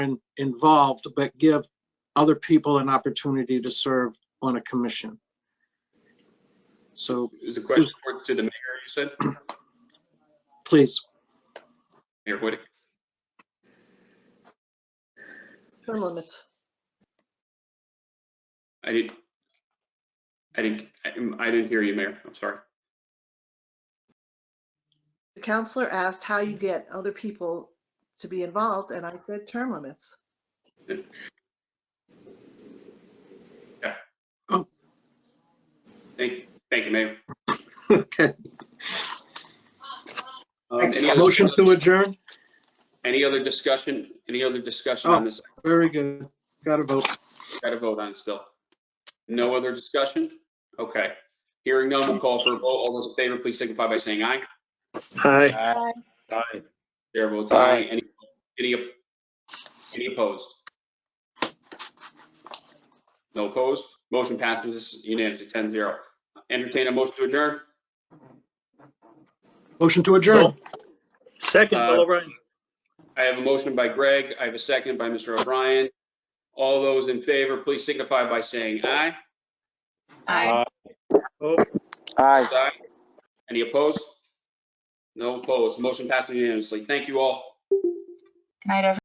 in- involved, but give other people an opportunity to serve on a commission. So Is the question for- to the mayor, you said? please, Mayor Whittick? Term limits. I didn't, I didn't, I- I didn't hear you, Mayor. I'm sorry. The counselor asked how you get other people to be involved, and I said term limits. Thank, thank you, Mayor. okay. Um, Thanks. any other- Motion to adjourn? Any other discussion, any other discussion on Oh. this? Very good. Got to vote. Got to vote on it still. No other discussion? Okay. Hearing none, we'll call for a vote. All those in favor, please signify by saying aye. Hi. Aye. Chair votes aye. Any, any, any opposed? No opposed? Motion passes unanimously, 10-0. Entertain a motion to adjourn? Motion to adjourn. Second, Uh, Bill O'Brien. I have a motion by Greg. I have a second by Mr. O'Brien. All those in favor, please signify by saying aye. Aye. Oh, Aye. Aye. Any opposed? No opposed. Motion passes unanimously. Thank you all. Good night, everyone.